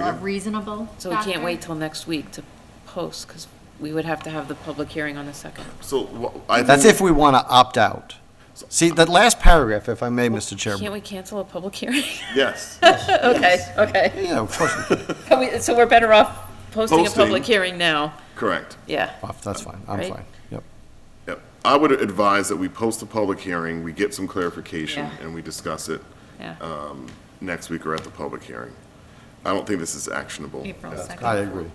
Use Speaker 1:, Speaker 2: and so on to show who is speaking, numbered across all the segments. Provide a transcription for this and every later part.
Speaker 1: are reasonable
Speaker 2: So we can't
Speaker 1: factor.
Speaker 2: wait till next week to post, because we would have to have the public hearing on the second.
Speaker 3: So wha- I think.
Speaker 4: That's if we want to opt out. See, that last paragraph, if I may, Mr.
Speaker 2: Can't
Speaker 4: Chairman.
Speaker 2: we cancel a public hearing?
Speaker 3: Yes.
Speaker 2: Okay, okay.
Speaker 4: Yeah, of course, we can.
Speaker 2: Can we- So we're better off posting a
Speaker 3: Posting.
Speaker 2: public hearing now,
Speaker 3: Correct.
Speaker 2: yeah.
Speaker 4: that's fine, I'm
Speaker 2: Right.
Speaker 4: fine, yep.
Speaker 3: Yep. I would advise that we post a public hearing, we get some clarification,
Speaker 2: Yeah.
Speaker 3: and we discuss it
Speaker 2: Yeah.
Speaker 3: next week or at the public hearing. I don't think this is actionable.
Speaker 1: April
Speaker 4: I
Speaker 1: 2nd.
Speaker 4: agree.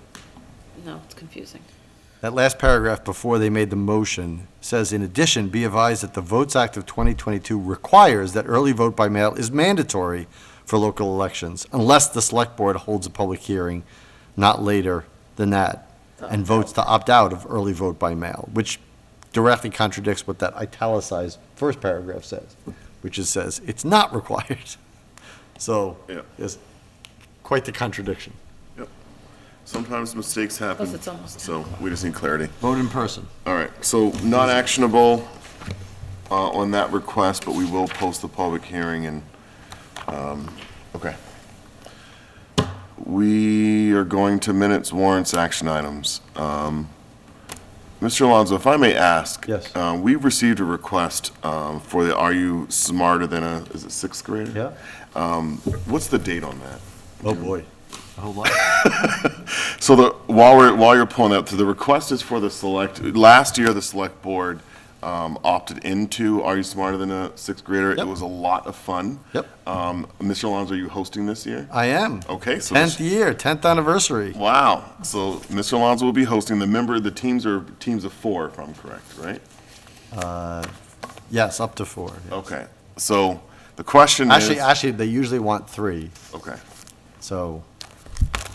Speaker 2: No, it's confusing.
Speaker 4: That last paragraph before they made the motion says, "In addition, be advised that the Votes Act of 2022 requires that early vote by mail is mandatory for local elections unless the Select Board holds a public hearing not later than that and votes to opt out of early vote by mail," which directly contradicts what that italicized first paragraph says, which is says it's not required. So
Speaker 3: Yeah.
Speaker 4: it's quite the contradiction.
Speaker 3: Yep. Sometimes mistakes happen.
Speaker 2: Plus it's almost
Speaker 3: So we just need clarity.
Speaker 4: Vote in person.
Speaker 3: All right, so not actionable uh, on that request, but we will post the public hearing and, um, okay. We are going to minutes, warrants, action items. Um, Mr. Alonso, if I may ask.
Speaker 4: Yes.
Speaker 3: uh, We received a request um, for the Are You Smarter Than a, is it sixth grader?
Speaker 4: Yeah.
Speaker 3: Um, What's the date on that?
Speaker 4: Oh, boy. A whole lot.
Speaker 3: So the, while we're, while you're pulling up, so the request is for the select, last year, the select board um, opted into Are You Smarter Than a Sixth Grader? It
Speaker 4: Yep.
Speaker 3: was a lot of fun.
Speaker 4: Yep.
Speaker 3: Um, Mr. Alonso, are you hosting this year?
Speaker 4: I am.
Speaker 3: Okay, so
Speaker 4: Tenth
Speaker 3: this-
Speaker 4: year, tenth anniversary.
Speaker 3: Wow. So Mr. Alonso will be hosting. The member, the teams are teams of four, if I'm correct, right?
Speaker 4: Yes, up to four. yeah.
Speaker 3: Okay. So the question is.
Speaker 4: Actually, actually, they usually want three,
Speaker 3: Okay.
Speaker 4: so,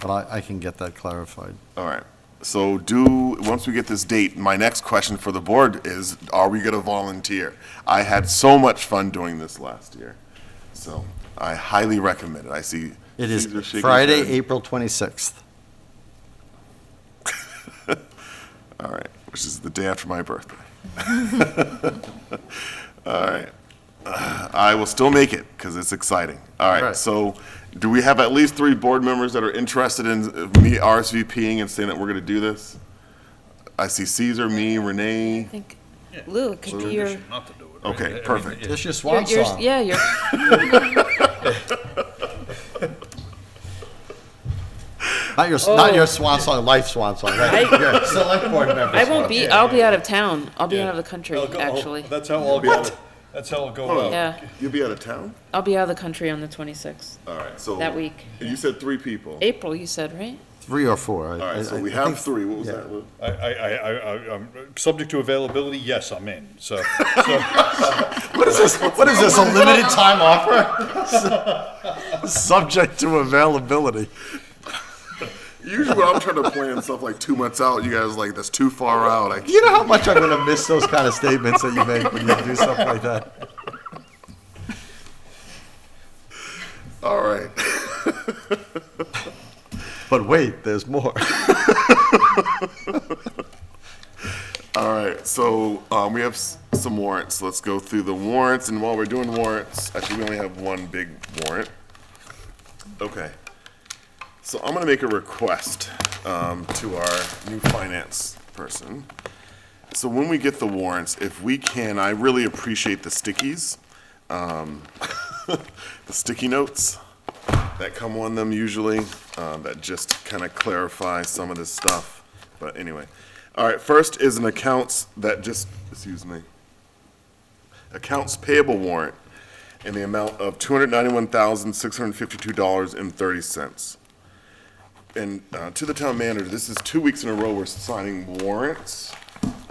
Speaker 4: but I, I can get that clarified.
Speaker 3: All right. So do, once we get this date, my next question for the board is, are we going to volunteer? I had so much fun doing this last year. So I highly recommend it. I see.
Speaker 4: It is
Speaker 3: Caesar shaking his
Speaker 4: Friday,
Speaker 3: head.
Speaker 4: April twenty-sixth.
Speaker 3: All right, which is the day after my birthday. All right. I will still make it because it's exciting. All right,
Speaker 4: Right.
Speaker 3: so do we have at least three board members that are interested in me RSVPing and saying that we're going to do this? I see Caesar, me,
Speaker 2: I
Speaker 3: Renee.
Speaker 2: think, Lou, it could be your,
Speaker 5: Condition not to do it. right?
Speaker 3: Okay,
Speaker 5: I mean,
Speaker 3: perfect.
Speaker 4: It's your
Speaker 2: your-
Speaker 4: swan
Speaker 2: your-
Speaker 4: song.
Speaker 2: yeah, your,
Speaker 4: Not your, not your swan song, life swan song. right? Your Select board member.
Speaker 2: Oh. I
Speaker 4: swan.
Speaker 2: won't be, I'll be out of town. I'll be
Speaker 5: Yeah.
Speaker 2: out of the country,
Speaker 5: I'll go- I'll-
Speaker 2: actually.
Speaker 5: That's how I'll go, that's how I'll go out.
Speaker 2: Yeah,
Speaker 3: You'll be out of town?
Speaker 2: I'll be out of the country on the twenty-sixth.
Speaker 3: All right, so.
Speaker 2: That week.
Speaker 3: You said three people.
Speaker 2: April, you said, right?
Speaker 4: Three or four.
Speaker 3: All right, so we have three. What was that, Lou?
Speaker 5: I, I, I, I, I- I'm, subject to availability, yes, I'm in, so, so,
Speaker 4: What is this, what is this, a limited time offer? Subject to availability.
Speaker 3: Usually when I'm trying to plan stuff like two months out, you guys are like, that's too far out. I
Speaker 4: You know how much I'm gonna miss those kind of statements that you make when you do stuff like that?
Speaker 3: All right.
Speaker 4: But wait, there's more.
Speaker 3: All right, so um, we have s- some warrants. Let's go through the warrants, and while we're doing warrants, actually, we only have one big warrant. Okay. So I'm gonna make a request um, to our new finance person. So when we get the warrants, if we can, I really appreciate the stickies, um, the sticky notes that come on them usually, uh, that just kind of clarify some of this stuff. But anyway, all right, first is an accounts that just, excuse me, accounts payable warrant in the amount of $291,652.30. And uh, to the town manager, this is two weeks in a row we're signing warrants,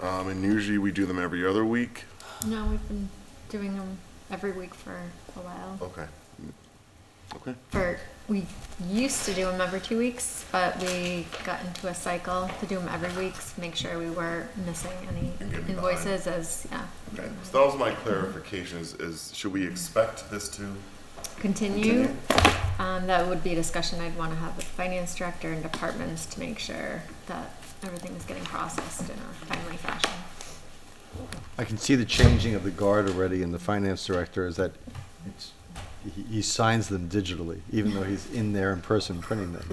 Speaker 3: um, and usually we do them every other week.
Speaker 1: No, we've been doing them every week for a while.
Speaker 3: Okay. Okay.
Speaker 1: For, we used to do them every two weeks, but we got into a cycle to do them every week to make sure we were missing any
Speaker 3: And getting behind.
Speaker 1: invoices as, yeah.
Speaker 3: Okay, so that was my clarification, is- is, should we expect this to?
Speaker 1: Continue. Um, that would be a discussion I'd wanna have with finance director and departments to make sure that everything is getting processed in a timely fashion.
Speaker 4: I can see the changing of the guard already in the finance director is that it's, he, he signs them digitally, even though he's in there in person printing them.